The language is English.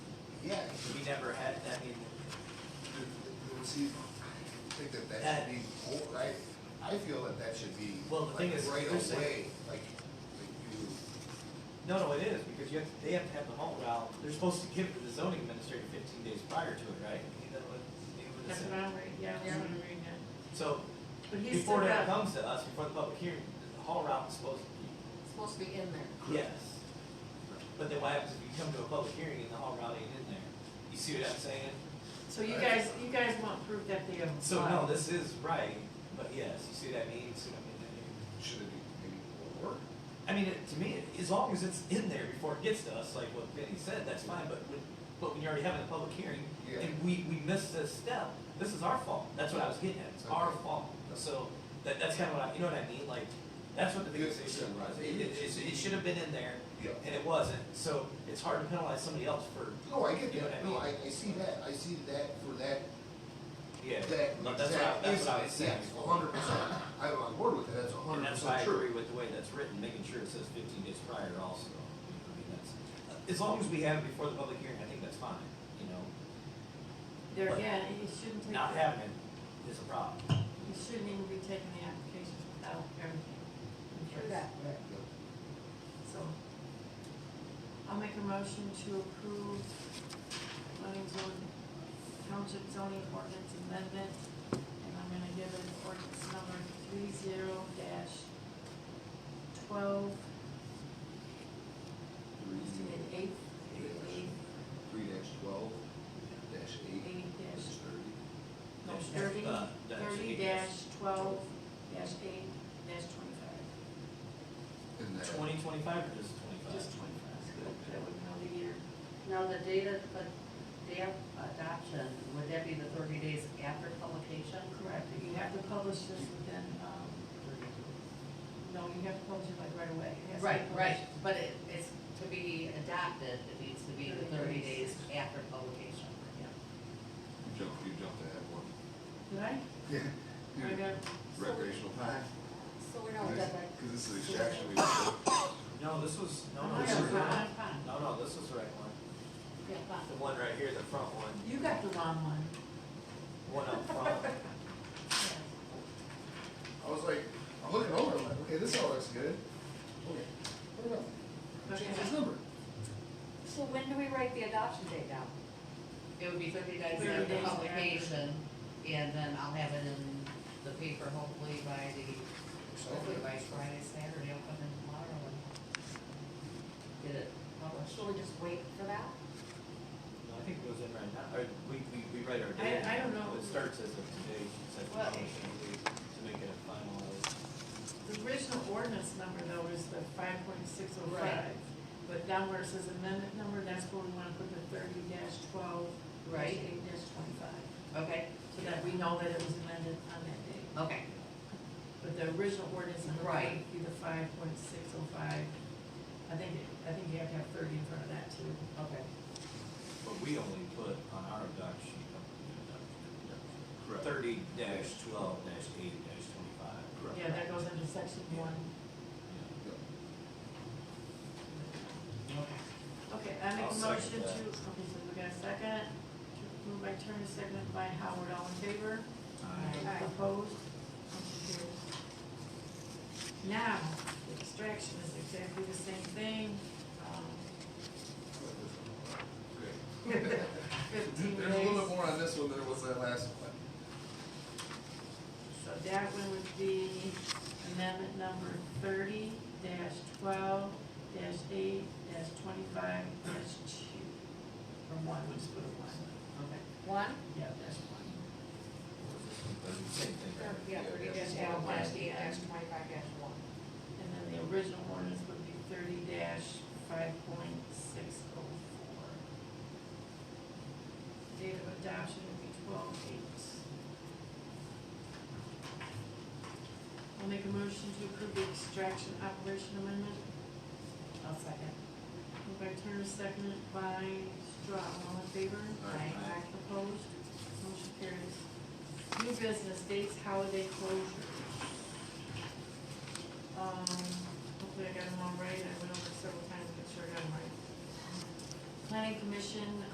we never had that meeting. See, I think that that should be, more- I, I feel that that should be. Well, the thing like, is, Right they're saying- away, like, like you, No, no, it is, because you have, they have to have the home, well, they're supposed to give it to the zoning administrator fifteen days prior to it, right? You know, what- you know what it That's said. what I'm reading, yeah, that's what I'm reading now. So, But he's still before that got, comes to us, before the public hearing, the haul route is supposed to be It's supposed to be in there. Yes. But then what happens if you come to a public hearing and the whole route ain't in there? You see what I'm saying? so you guys, you guys want proof that they have applied. So no, this is right, but yes, you see what I mean, you see what I mean? should it be maybe more? I mean, it- to me, it- as long as it's in there before it gets to us, like what Vinny said, that's fine, but when, but when you're already having a public hearing, Yeah. and we, we missed this step, this is our fault, that's what I was getting at, it's our Okay. fault. So, that, that's kinda what I, you know what I mean, like, that's what the Yeah, biggest issue yeah, was, right. it, it, it should have been in there, Yeah. and it wasn't, so it's hard to penalize somebody else for No, I get You know what I that, no, mean? I, I see that, I see that for that, Yeah, that, No, that's what I, that that's what incident, I was saying. yes, a hundred percent, I'm on board with that, that's a And hundred that's why I percent true. agree with the way that's written, making sure it says fifteen days prior also. You know, I mean, that's- uh, As long as we have it before the public hearing, I think that's fine, you know, There again, it shouldn't take, not it having it is a problem. shouldn't even be taking the applications without everything. So, I'll make a motion to approve zoning zone, township zoning ordinance amendment, and I'm gonna give it ordinance number three zero dash twelve, is it an eight? Eight, Three dash twelve, dash eight, eight dash dash, thirty. no, Dash- thirty, uh, dash thirty eight dash dash twelve, dash eight, dash twenty-five, And that, Twenty, twenty-five or just twenty-five? just twenty-five, that would know the year. Now, the data, the dam adoption, would that be the thirty days after publication? Correct, but you have to publish this within, um, no, you have to publish it like right away. It has to be Right, right, published. but it, it's to be adopted, it needs to be the thirty days after publication. you jumped, you jumped ahead one. Did I? Yeah. I got, Recreational time. So we're not done with. Cause this is extraction we did. No, this was, no, no, I this got was, the wrong no, one. no, this was the right one. Yeah, fine. The one right here, the front one, You got the wrong one. one up front. I was like, I'm looking over, I'm like, okay, this all looks good. Okay, what about, change this number? So when do we write the adoption date down? It would be thirty days 30 after days after. publication, and then I'll have it in the paper hopefully by the, hopefully by Friday, Saturday, I'll come in tomorrow and get it published. Should we just wait for that? No, I think it goes in right now, or we, we, we write our I- date. I don't know. It starts as of today, she said, Well, it- to make it a final. The original ordinance number though is the five point six oh Right. five. But down where it says amendment number, that's where we wanna put the thirty dash twelve, dash Right. eight dash twenty-five. Okay, So that we know that it was amended on that date. okay, But the original ordinance number Right. would be the five point six oh five. I think, it- I think you have to have thirty in front of that too. okay. But we only put on our doc sheet, uh, uh, uh, Correct. thirty dash twelve dash eight dash twenty-five. Yeah, that goes under section one. Okay, I make I'll a second motion to, that. okay, so we got a second, to move by Turner, seconded by Howard, all in favor? Aye. Opposed? Motion carries. Now, the extraction is exactly the same thing, um, fifteen days. There's a little bit more on this one than there was that last one. So that one would be amendment number thirty dash twelve dash eight dash twenty-five dash two. Or one, we'll just put a one. Okay. One? Yeah, that's one. Same thing, right? Yeah, thirty thirty dash dash one, one, dash dash eight, eight, dash dash twenty-five, dash one. And then the original ordinance would be thirty dash five point six oh four. Date of adoption would be twelve eight. I'll make a motion to approve the extraction operation amendment. I'll second. Moved by Turner, seconded by Straw, all in favor? Aye. Aye. Opposed? Motion carries. New business dates, holiday closure. Um, hopefully I got them all right, I went over several times, but sure I got them right. Planning Commission,